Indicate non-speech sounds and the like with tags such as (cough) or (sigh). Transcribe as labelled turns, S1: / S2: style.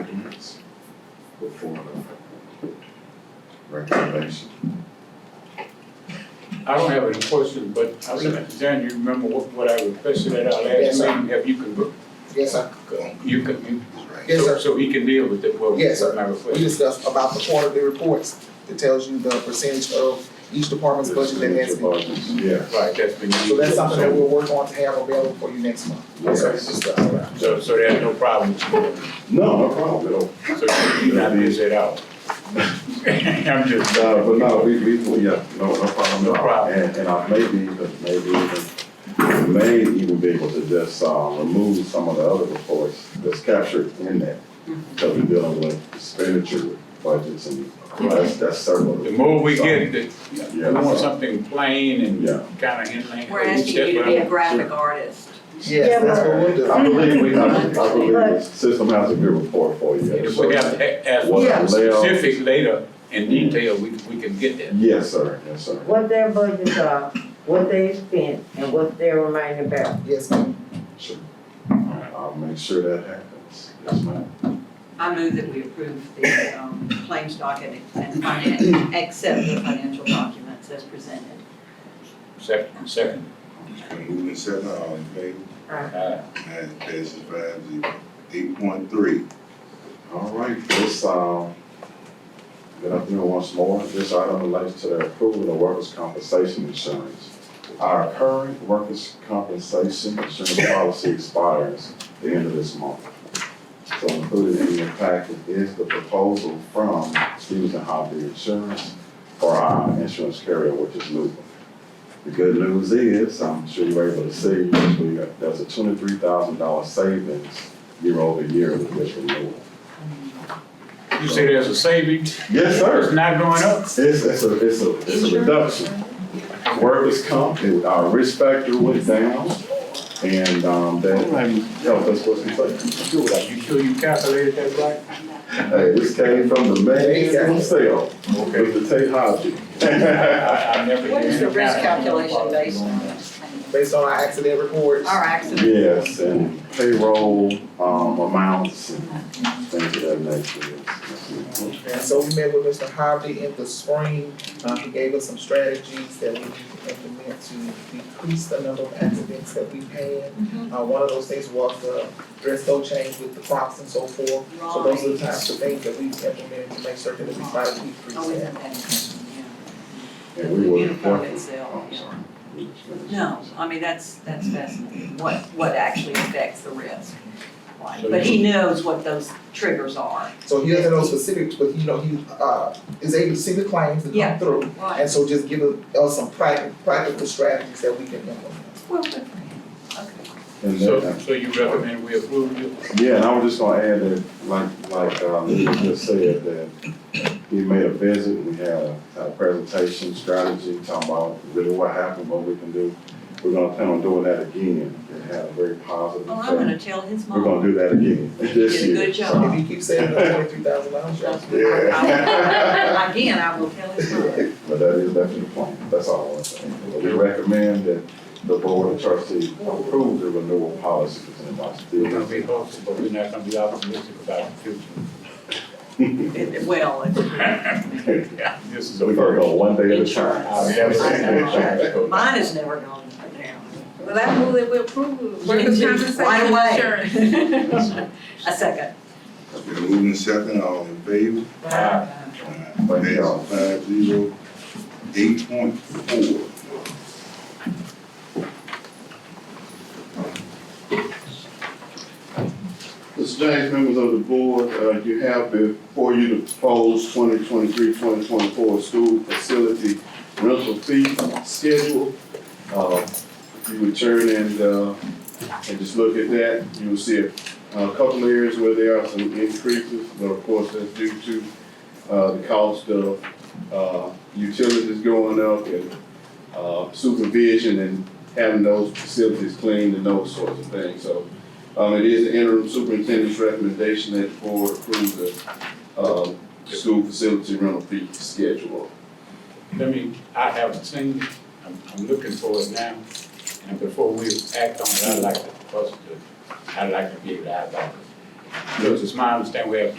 S1: documents before the recommendation.
S2: I don't have any questions, but I was, Dan, you remember what, what I requested at our last
S3: Yes, sir.
S2: meeting, have you can,
S3: Yes, sir.
S2: you can, you.
S3: Yes,
S2: so-
S3: sir.
S2: So he can deal with it, well,
S3: Yes, sir.
S2: my
S3: We
S2: request.
S3: discussed about the quarterly reports. It tells you the percentage of each department's budget that has been.
S1: Budgets, Yeah.
S2: Right, that's been.
S3: So that's something that we'll work on to have available for you next month. uh,
S1: Yes, sir.
S3: It's discussed.
S2: So, so there's no problem, so
S1: No, no problem at all.
S2: you not miss it out. (laughs) I'm just,
S1: Uh, but no, we, we, we, yeah, no, no problem
S2: No
S1: at all.
S2: problem.
S1: And, and I may be, even maybe even, may even be able to just, uh, remove some of the other reports that's captured in that. Cause we're dealing with expenditure budgets and that's, that's several.
S2: the more we get, the, we
S1: Yeah.
S2: want something plain
S1: Yeah.
S2: and kinda in line.
S4: We're asking you to be a graphic artist.
S3: Yes, that's what we'll
S1: I
S3: do.
S1: believe we, I believe the system has a good report for you.
S2: If we have, to ask
S1: What
S2: for
S1: layout-
S2: specific later in detail, we, we can get that.
S1: Yes, sir, yes, sir.
S5: what their budgets are, what they spent, and what they're reminding about.
S3: Yes, ma'am.
S1: Sure. I'll make sure that happens. Yes, ma'am.
S4: I move that we approve the um, claims docket and finance, accept the financial documents as presented.
S2: Second, second,
S6: It's been moved and second, all in favor,
S2: uh,
S6: motion passes five zero. Eight point three,
S1: All right, this, um, good afternoon once more. This item relates to the approval of workers' compensation insurance. Our current workers' compensation insurance policy expires the end of this month. So included in your packet is the proposal from Stevens and Hobby Insurance for our insurance carrier, which is Luba. The good news is, I'm sure you were able to see, we got- there's a twenty-three thousand dollar savings year over year with this renewal.
S2: you say there's a savings,
S1: Yes,
S2: it's
S1: sir.
S2: not going up?
S1: It's, it's a, it's a, it's a reduction. Workers' comp, it- our risk factor went down, and, um, that, yo, that's what's important.
S2: You sure you calculated that right?
S1: Hey, this came from the man himself, Mr. Tate Hodges.
S2: (laughs) I, I never.
S4: What is the
S2: did the
S4: risk calculation
S2: calculation.
S4: based on?
S3: Based on our accident reports.
S4: Our accident.
S1: (laughs) Yes, and payroll, um, amounts and things of that nature. Yes, yes, yes.
S3: And so we met with Mr. Harvey in the spring. Uh, he gave us some strategies that we can implement to decrease the number of accidents that we've had. Uh, one of those things was the dress code change with the props and so forth. So those are the types of things that we implemented to make certain that we try to
S4: Oh,
S3: decrease
S4: isn't
S3: that.
S4: that, yeah.
S1: And we were.
S4: Uniform itself,
S1: I'm
S4: yeah.
S1: sorry. We just finished.
S4: No, I mean, that's, that's fascinating, what, what actually affects the risk. Like,
S2: So
S4: But
S2: you-
S4: he knows what those triggers are.
S3: So he doesn't know specifics, but you know, he uh is able to see the claims that
S4: Yeah.
S3: come through. And so just give us- us some practical practical strategies that we can implement.
S4: Well, good for him, okay.
S1: And then-
S2: So, so you recommend we approve it?
S1: Yeah, and I was just gonna add that, like, like, uh, Lisa just said, that we made a visit, we had a, a presentation strategy, talking about really what happened, what we can do. We're gonna plan on doing that again, it had a very positive
S4: Well, Oh, I'm
S1: effect.
S4: gonna tell his
S1: We're gonna
S4: mom.
S1: do that again (laughs) this
S4: did a
S1: year.
S4: good job.
S3: If you keep saying the twenty-three thousand dollars,
S4: I-
S1: Yeah.
S4: I- Again, I will tell his mom.
S1: But that is definitely the plan, that's all I want to say. But We recommend that the board of trustees approve the renewal policy presented by
S2: We're gonna
S1: Steve.
S2: be hopeful, but we're not gonna be optimistic about the future.
S4: It- it- Well, it's,
S2: This is
S1: So we're gonna
S2: a.
S1: go one day at a
S2: I
S1: time.
S4: Insurance.
S2: never-
S4: mine has never gone down.
S7: Well, I move that we approve workers'
S4: Right
S7: compensation
S4: away.
S7: insurance.
S4: (laughs) A second.
S6: it's been moved and second, all in favor,
S2: Uh,
S6: motion passes five zero. Eight point four,
S8: Mr. James, members of the board, uh, you have before you the proposed 2023-2024 school facility rental fee schedule. Uh, if you would turn and, uh, and just look at that, you'll see a, a couple areas where there are some increases, but of course, that's due to, uh, the cost of, uh, utilities going up and, uh, supervision and having those facilities cleaned and those sorts of things, so um, it is the interim superintendent's recommendation that the board approve the, um, school facility rental fee schedule.
S2: Let me, I haven't seen, it. I'm, I'm looking for it now, and before we act on it, I'd like to, first, to- I'd like to be able to have that. Because it's my understanding we have